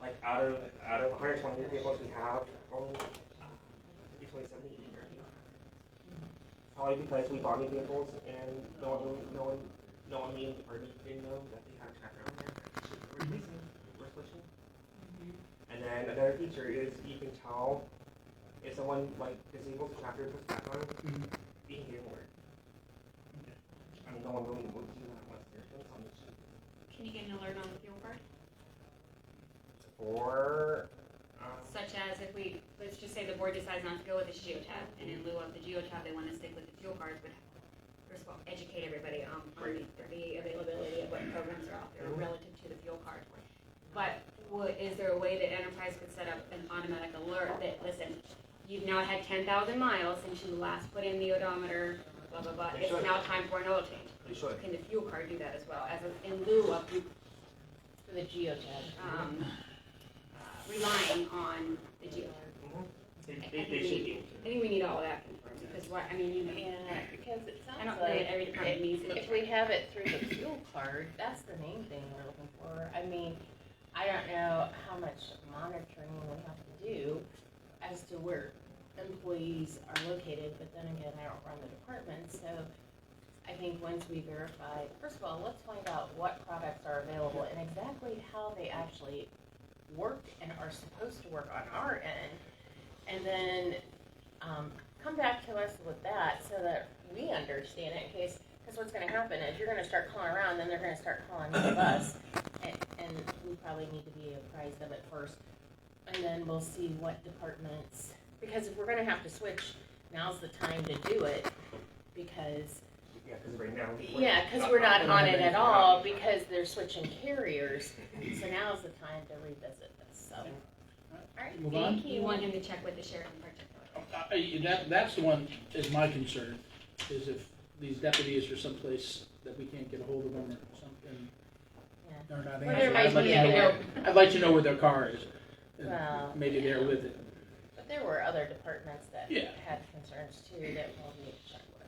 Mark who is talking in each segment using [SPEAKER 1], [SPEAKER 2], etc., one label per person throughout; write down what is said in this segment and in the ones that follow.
[SPEAKER 1] like out of out of 120 tables we have only between 70 and 30. Probably because we bought new tables and no one really- no one no one mean or didn't know that they had a tracker on there. We're using we're switching. And then another feature is you can tell if someone like disables the tracker and puts it back on, you can hear more. I mean, no one really would do that unless they're doing something.
[SPEAKER 2] Can you get an alert on the fuel card?
[SPEAKER 1] Or um,
[SPEAKER 2] Such as if we, let's just say the board decides not to go with the geotab, and in lieu of the geotab, they want to stick with the fuel card, but first of all, educate everybody on, on the, the availability of what programs are out there relative to the fuel card. But would, is there a way that enterprise could set up an automatic alert that, listen, you've now had ten thousand miles since you last put in the odometer, blah, blah, blah,
[SPEAKER 1] They
[SPEAKER 2] it's
[SPEAKER 1] should.
[SPEAKER 2] now time for an oil change.
[SPEAKER 1] they should.
[SPEAKER 2] Can the fuel card do that as well, as a- in lieu of you
[SPEAKER 3] For the geotab.
[SPEAKER 2] um, uh, relying on the geo.
[SPEAKER 3] Mm-hmm.
[SPEAKER 1] They, they, they should be.
[SPEAKER 2] I think we need all that confirmed, because what, I mean, you know,
[SPEAKER 3] Yeah, because it
[SPEAKER 2] I
[SPEAKER 3] sounds
[SPEAKER 2] don't know that
[SPEAKER 3] like
[SPEAKER 2] every department needs it.
[SPEAKER 3] if we have it through the fuel card, that's the main thing we're looking for. I mean, I don't know how much monitoring we have to do as to where employees are located, but then again, I don't run the department, so I think once we verify, first of all, let's find out what products are available and exactly how they actually work and are supposed to work on our end. And then um, come back to us with that so that we understand it in case, because what's going to happen is you're going to start calling around, then they're going to start calling one of us. And, and we probably need to be apprised of it first. And then we'll see what departments, because if we're going to have to switch, now's the time to do it because
[SPEAKER 1] Yeah, because right now. we're-
[SPEAKER 3] yeah, because we're not on it at all
[SPEAKER 1] Yeah.
[SPEAKER 3] because they're switching carriers. So now's the time to revisit this, so. Alright,
[SPEAKER 4] Move
[SPEAKER 3] thank
[SPEAKER 2] You want
[SPEAKER 3] you.
[SPEAKER 2] him to check with the sheriff in particular.
[SPEAKER 4] I- I- That, that's the one is my concern, is if these deputies are someplace that we can't get a hold of them or something.
[SPEAKER 3] Yeah.
[SPEAKER 4] They're not
[SPEAKER 3] Well, there
[SPEAKER 4] answering.
[SPEAKER 3] might
[SPEAKER 4] I'd like
[SPEAKER 3] be,
[SPEAKER 4] to
[SPEAKER 3] you
[SPEAKER 4] know
[SPEAKER 3] know,
[SPEAKER 4] where, I'd like to know where their car is. and
[SPEAKER 3] Well,
[SPEAKER 4] Maybe they're with it.
[SPEAKER 3] but there were other departments that
[SPEAKER 4] Yeah.
[SPEAKER 3] had concerns too that we'll need to check with.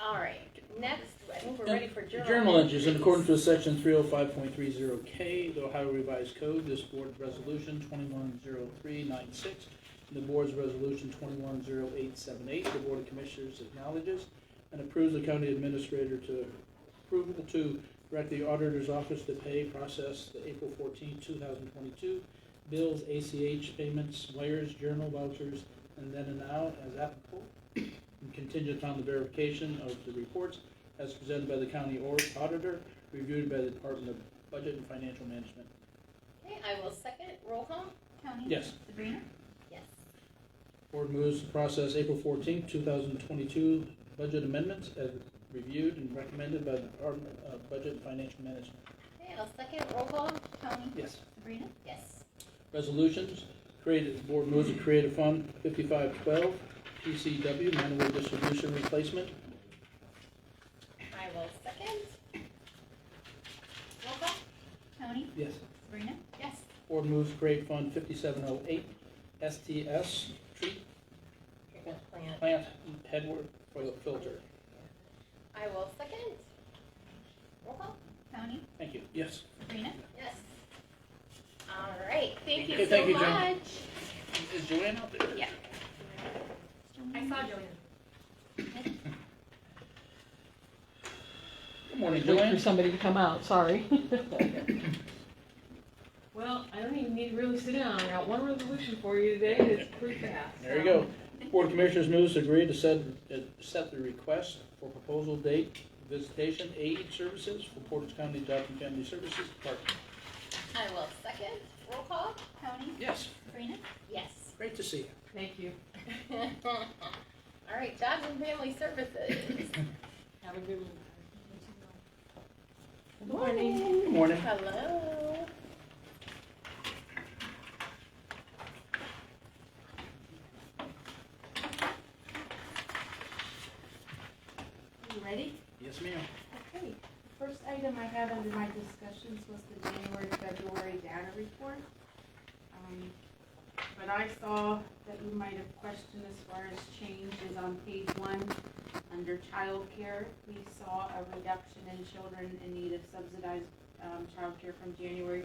[SPEAKER 3] Alright, next, I think we're ready for journal.
[SPEAKER 4] Journal entries, in accordance with section three oh five point three zero K, the Ohio Revised Code, this board's resolution twenty-one zero three nine six, and the board's resolution twenty-one zero eight seven eight, the Board of Commissioners acknowledges and approves the county administrator to approve, to direct the auditor's office to pay, process the April fourteenth, two thousand twenty-two bills, ACH payments, wires, journal vouchers, and then and now as applicable, and contingent on the verification of the reports as presented by the county or- auditor, reviewed by the Department of Budget and Financial Management.
[SPEAKER 3] Okay, I will second, roll call?
[SPEAKER 5] Tony?
[SPEAKER 4] Yes.
[SPEAKER 5] Sabrina?
[SPEAKER 3] Yes.
[SPEAKER 4] Board moves to process April fourteenth, two thousand twenty-two budget amendments as reviewed and recommended by the Department of Budget and Financial Management.
[SPEAKER 3] Okay, I'll second, roll call?
[SPEAKER 5] Tony?
[SPEAKER 4] Yes.
[SPEAKER 5] Sabrina?
[SPEAKER 3] Yes.
[SPEAKER 4] Resolutions, created, the board moves to create a fund fifty-five twelve, PCW, manual distribution replacement.
[SPEAKER 3] I will second. Roll call?
[SPEAKER 5] Tony?
[SPEAKER 4] Yes.
[SPEAKER 5] Sabrina?
[SPEAKER 3] Yes.
[SPEAKER 4] Board moves to create fund fifty-seven oh eight, STS, treat
[SPEAKER 3] Treatment plant,
[SPEAKER 4] plant headward oil filter.
[SPEAKER 3] I will second. Roll call?
[SPEAKER 5] Tony?
[SPEAKER 4] Thank you. Yes.
[SPEAKER 5] Sabrina?
[SPEAKER 3] Yes. All right, thank you
[SPEAKER 4] Okay,
[SPEAKER 3] so
[SPEAKER 4] thank you, Jen.
[SPEAKER 3] much.
[SPEAKER 4] Is Joanne out there?
[SPEAKER 2] Yeah. I saw Joanne.
[SPEAKER 4] Good morning,
[SPEAKER 6] Wait for
[SPEAKER 4] Joanne.
[SPEAKER 6] somebody to come out, sorry. Well, I don't even need to really sit down, I got one resolution for you today, it's pretty fast.
[SPEAKER 4] There you go. Board of Commissioners moves to agree to set, uh, set the request for proposal date, visitation, aid services for Portage County Job and Family Services Department.
[SPEAKER 3] I will second. Roll call?
[SPEAKER 5] Tony?
[SPEAKER 4] Yes,
[SPEAKER 5] Sabrina?
[SPEAKER 3] Yes.
[SPEAKER 4] Mm-hmm. great to see you.
[SPEAKER 6] Thank you,
[SPEAKER 3] All right, Jobs and Family Services.
[SPEAKER 6] have a good one. Good
[SPEAKER 4] Good morning.
[SPEAKER 3] Hello.
[SPEAKER 7] You ready?
[SPEAKER 4] Yes, ma'am.
[SPEAKER 7] Okay. First item I had under my discussions was the January, February data report. Um, But I saw that you might have questioned as far as changes on page one, under childcare. We saw a reduction in children in need of subsidized um, childcare from January